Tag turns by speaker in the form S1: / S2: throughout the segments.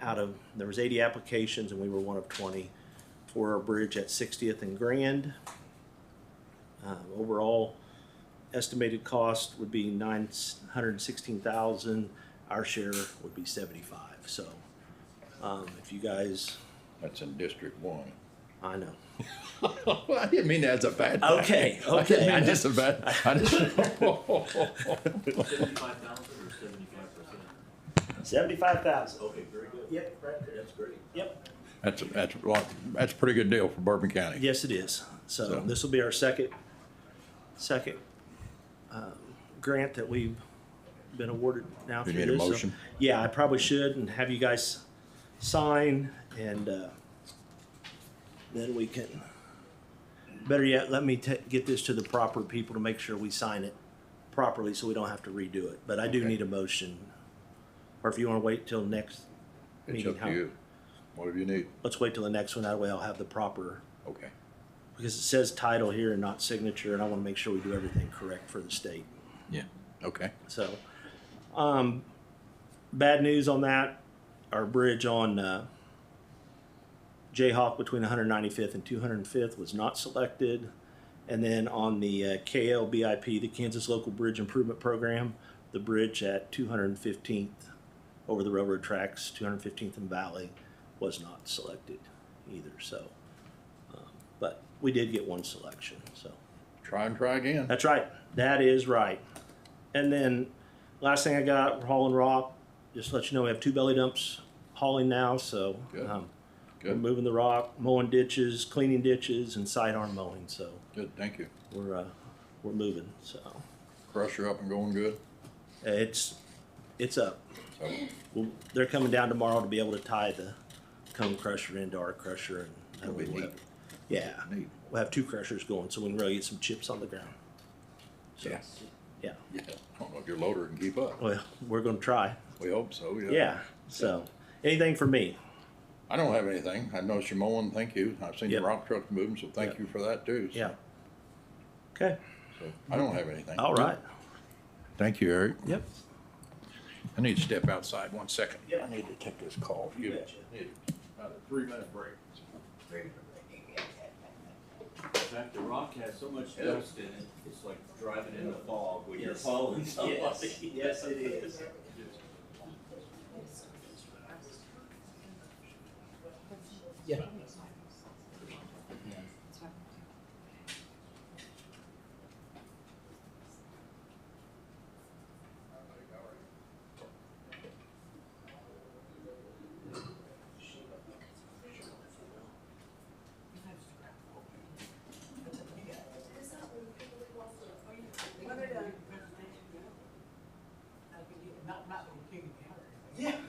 S1: out of, there was eighty applications and we were one of twenty for our bridge at Sixtieth and Grand. Um, overall, estimated cost would be nine hundred and sixteen thousand, our share would be seventy-five, so. Um, if you guys,
S2: That's in District One.
S1: I know,
S2: I didn't mean that as a bad thing.
S1: Okay,
S2: I didn't
S1: okay.
S2: mean that's a bad, I just.
S3: Seventy-five thousand or seventy-five percent?
S1: seventy-five thousand.
S3: Okay, very good.
S1: Yep, right there.
S3: That's great.
S1: Yep.
S2: That's, that's, a lot- that's a pretty good deal for Bourbon County.
S1: Yes, it is. So
S2: So-
S1: this will be our second, second um, grant that we've been awarded now
S2: Do
S1: through
S2: you
S1: this.
S2: need a
S1: So,
S2: motion?
S1: Yeah, I probably should and have you guys sign and uh, then we can, better yet, let me ta- get this to the proper people to make sure we sign it properly so we don't have to redo it. But I do
S2: Okay.
S1: need a motion. Or if you want to wait till next,
S2: It's
S1: Meeting
S2: up
S1: how-
S2: to you. Whatever you need.
S1: let's wait till the next one. That way I'll have the proper
S2: Okay.
S1: because it says title here and not signature, and I want to make sure we do everything correct for the state.
S2: Yeah. Okay.
S1: So, um, bad news on that. Our bridge on uh, Jayhawk between 195th and 205th was not selected. And then on the uh, KLBIP, the Kansas Local Bridge Improvement Program, the bridge at 215th over the railroad tracks, 215th and Valley, was not selected either. So, um, but we did get one selection. So.
S2: Try and try again.
S1: That's right. That is right. And then last thing I got, we're hauling rock. Just to let you know, we have two belly dumps hauling now, so
S2: Good.
S1: um, we're
S2: Good,
S1: moving the rock, mowing ditches, cleaning ditches, and sidearm mowing. So
S2: good, thank you.
S1: we're uh, we're moving. So
S2: Crusher up and going good.
S1: it's it's up.
S2: So,
S1: Well, they're coming down tomorrow to be able to tie the cone crusher into our crusher, and that'll
S2: That'll
S1: be
S2: be
S1: we'll
S2: neat.
S1: have- Yeah,
S2: neat.
S1: we'll have two crushers going, so we can really get some chips on the ground. So,
S2: Yeah.
S1: yeah.
S2: Yeah. I don't know if your loader can keep up.
S1: Well, we're gonna try.
S2: We hope so, yeah.
S1: Yeah. So, anything for me?
S2: I don't have anything. I noticed you're mowing, thank you. I've seen the
S1: Yep.
S2: rock truck moving, so thank
S1: Yep.
S2: you for that too.
S1: Yeah. Okay.
S2: So, I don't have anything.
S1: All right.
S2: Thank you, Eric.
S1: Yep.
S2: I need to step outside one second.
S1: Yep.
S2: I need to take this call.
S1: You
S2: Give-
S1: betcha.
S2: need About a three-minute break.
S3: In fact, the rock has so much
S2: Yeah.
S3: dust in it, it's like driving in the fog when you're
S1: Yes.
S3: following somebody.
S1: Yes, it is.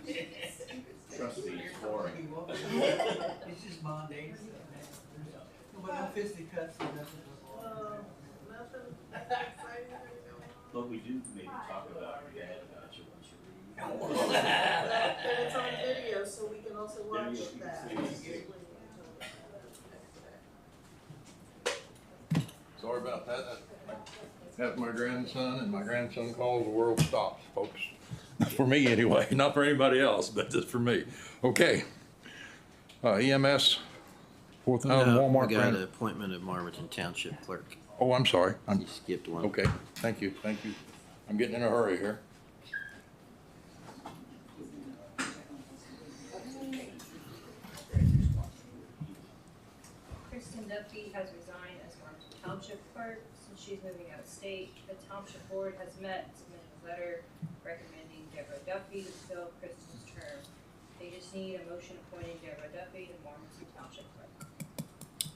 S3: Trust me, it's boring.
S4: It's just Monday. Nobody fisticuffs or nothing.
S3: But we do maybe talk about your dad about you once you leave.
S5: But it's on video, so we can also
S3: There
S5: watch
S3: you go.
S5: that.
S2: Sorry about that. That's- That's my grandson, and my grandson calls, the world stops, folks. For me, anyway, not for anybody else, but just for me. Okay. Uh, EMS, four thousand
S6: No,
S2: Oh, Walmart
S6: we got an
S2: grant.
S6: appointment of Marvinton Township Clerk.
S2: Oh, I'm sorry. I'm,
S6: You skipped one.
S2: okay, thank you, thank you. I'm getting in a hurry here.
S7: Kristen Duffy has resigned as Martin Township Clerk since she's moving out of state. The Township Board has met, and submitted a letter recommending Deborah Duffy to fill Kristen's term. They just need a motion appointing Deborah Duffy to Martin Township Clerk.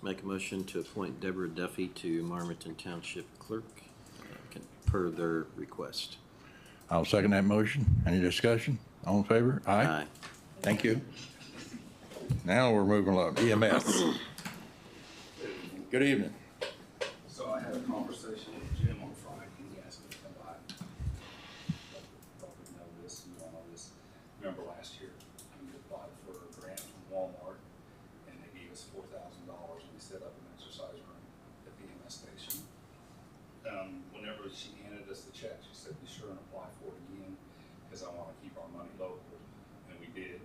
S6: Make a motion to appoint Deborah Duffy to Marvinton Township Clerk, uh, can- per their request.
S2: I'll second that motion. Any discussion? All in favor? Aye. Thank you. Now we're moving along. EMS. Good evening.
S8: So I had a conversation with Jim on Friday, he asked me to come by. Hope you know this, you all know this, remember last year, we applied for a grant from Walmart, and they gave us four thousand dollars, and we set up an exercise room at the EMS station. Um, whenever she handed us the check, she said, be sure and apply for it again, because I want to